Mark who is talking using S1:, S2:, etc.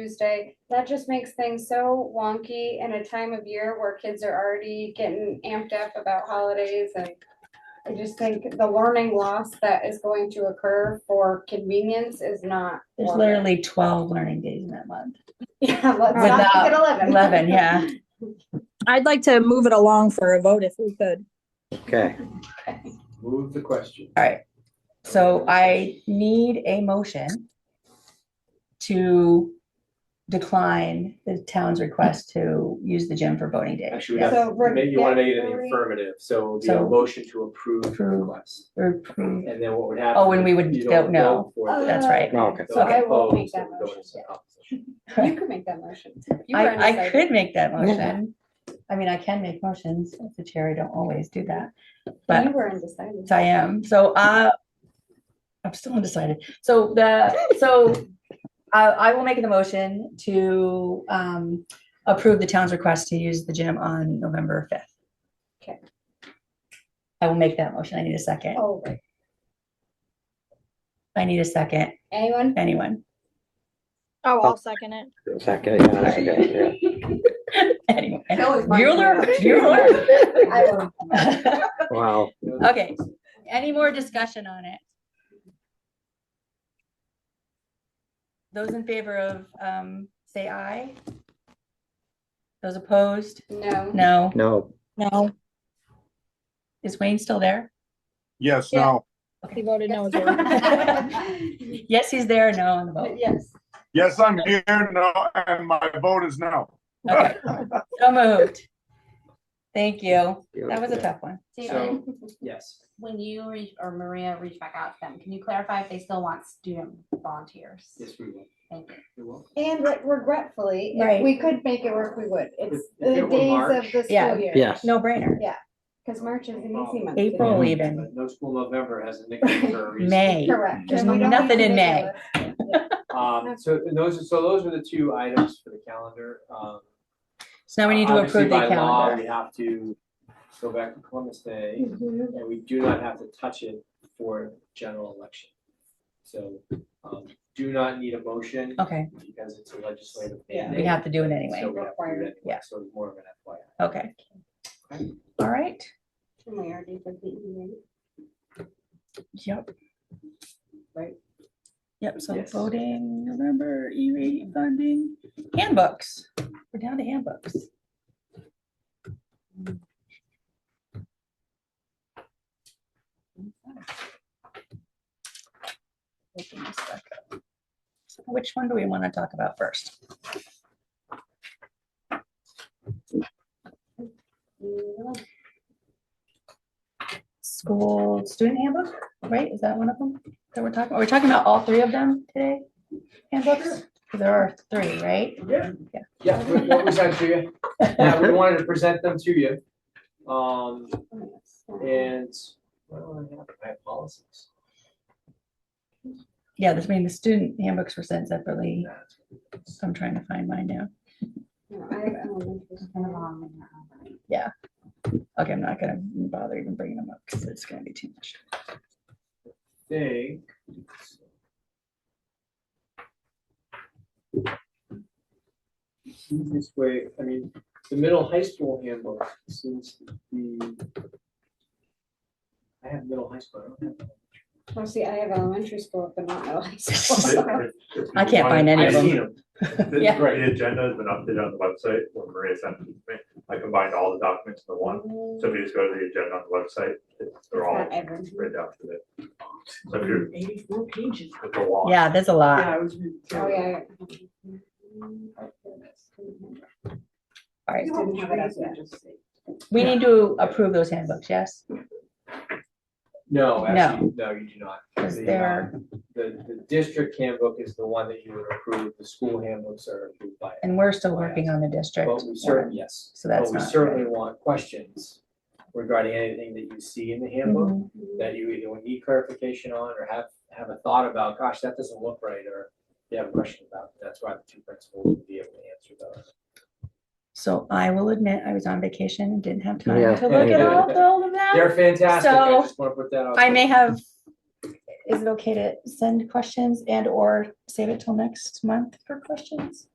S1: Tuesday. That just makes things so wonky in a time of year where kids are already getting amped up about holidays and I just think the learning loss that is going to occur for convenience is not.
S2: There's
S1: worth it.
S2: literally twelve learning days in that month.
S1: Yeah, let's not make it eleven.
S2: Eleven, yeah.
S3: I'd like to move it along for a vote if we could.
S4: Okay,
S5: Move the question.
S2: All right. So I need a motion to decline the town's request to use the gym for voting day.
S5: Actually, we
S2: Yeah.
S5: have,
S1: So we're
S5: maybe you want to make it in the
S1: definitely-
S5: affirmative, so it would be a
S2: So-
S5: motion to approve the
S2: Approve.
S5: request.
S2: Or approve.
S5: And then what would happen?
S2: Oh, and we would
S5: you
S2: vote no.
S5: vote for it.
S1: Uh,
S2: That's right.
S4: Oh, okay.
S5: Those
S2: So I
S1: will make
S5: opposed,
S1: that
S5: it would go
S1: motion,
S5: into
S1: yeah.
S5: opposition.
S1: You could make that motion. You were
S2: I, I
S1: undecided.
S2: could make that
S4: Yeah.
S2: motion. I mean, I can make motions as the chair. I don't always do that. But
S1: You were undecided.
S2: Yes, I am. So uh, I'm still undecided. So the, so I, I will make the motion to um, approve the town's request to use the gym on November 5th.
S1: Okay.
S2: I will make that motion. I need a second.
S1: Oh, right.
S2: I need a second.
S1: Anyone?
S2: Anyone?
S3: Oh,
S4: I'll
S3: second it.
S4: second, yeah, that's okay,
S2: Anyone?
S1: That was my
S2: Bueller?
S1: idea.
S2: Bueller?
S1: I will.
S4: yeah. Wow,
S2: Okay. Any more discussion on it? Those in favor of, um, say aye? Those opposed?
S1: No.
S2: No.
S4: no,
S3: No,
S2: Is Wayne still there?
S6: Yes,
S3: Yeah.
S6: no,
S3: he voted no as well.
S1: But
S2: Yes, he's there, no on the vote.
S1: Yes.
S6: yes, I'm here, no, and my vote is no.
S2: Okay, so moved. Thank you. That was a
S4: Beautiful.
S2: tough one.
S7: Susan,
S5: So, yes,
S7: when you re- or Maria reach back out to them, can you clarify if they still want student volunteers?
S5: yes, we will.
S7: Thank you.
S5: We will.
S1: And re- regretfully, if
S2: Right.
S1: we could make it work, we would. It's
S5: If- if
S1: the
S5: it were
S1: days of
S5: March-
S1: the
S2: Yeah.
S1: school year.
S4: yes,
S2: No brainer.
S1: Because March is an easy month.
S2: April
S4: Yeah.
S2: even,
S5: Um, But no school November has a nickname for a reason.
S2: May.
S1: Correct.
S2: There's
S1: And we don't
S2: nothing
S1: have to
S2: in May.
S1: make a list.
S5: Um, so and those, are- so those were the two items for the calendar. Um,
S2: So now we need to
S5: obviously
S2: approve the
S5: by law,
S2: calendar.
S5: We have to go back to Columbus Day.
S1: Mhm.
S5: and we do not have to touch it for general election. So, um, do not need a motion
S2: Okay,
S5: because it's a legislative.
S1: Yeah.
S2: Oh. we have to do it anyway.
S5: So we have to do it anyway,
S2: Yeah.
S5: so it's more of an FYI.
S2: Okay. All right.
S1: And we already did the evening.
S2: Yep.
S1: Right?
S2: Yep, so
S5: Yes.
S2: voting, November, E-rate funding, handbooks, we're down to handbooks. Open this back up. Which one do we want to talk about first? School student handbook, right, is that one of them that we're talking, are we talking about all three of them today? Handbooks, 'Cause there are three, right?
S5: Yeah.
S2: Yeah.
S5: Yeah, we- what was that to you? Yeah, we wanted to present them to you. Um, and, well, I have I have policies.
S2: Yeah, this, I mean, the student handbooks were sent separately,
S5: That's what it is.
S2: so I'm trying to find mine now.
S1: No, I have elementary
S7: Kind of
S1: school.
S7: long in that one.
S2: Okay, I'm not gonna bother even bringing them up, because it's gonna be too much.
S5: think. This way, I mean, the middle high school handbook seems to be. I have middle high school, I don't have.
S1: Oh, see, I have elementary school, but not middle high school.
S2: I can't find any of
S5: I've seen
S2: them.
S5: them.
S8: The,
S2: Yeah.
S8: the agenda has been updated on the website when Maria sent it to me. I combined all the documents into one. So if you just go to the agenda on the website, it's- they're all
S1: Not
S8: right
S1: everyone.
S8: down to it. So if you're. Eighty-four pages. It's a lot.
S2: Yeah, there's a lot.
S5: Yeah, I was.
S1: Oh, yeah.
S2: All right,
S1: Didn't have it as yet.
S2: we need to approve those handbooks, yes?
S5: No,
S2: No.
S5: actually, no, you do not.
S2: Because
S5: The, uh,
S2: they're,
S5: The, the district handbook is the one that you would approve, the school handbooks are approved by.
S2: and we're still working on the district.
S5: But we certainly, yes.
S2: So that's
S5: But we
S2: not
S5: certainly want questions regarding anything that you see in the handbook
S2: Mhm.
S5: that you either would need clarification on or have, have a thought about, gosh, that doesn't look right, or you have a question about. That's why the two principals would be able to answer those.
S2: So I will admit, I was on vacation and didn't have time
S4: Yeah.
S2: to look at all all of them.
S5: They're fantastic. I
S2: So,
S5: just want to put that out.
S2: I
S5: there.
S2: may have is it okay to send questions and or save it till next month for questions?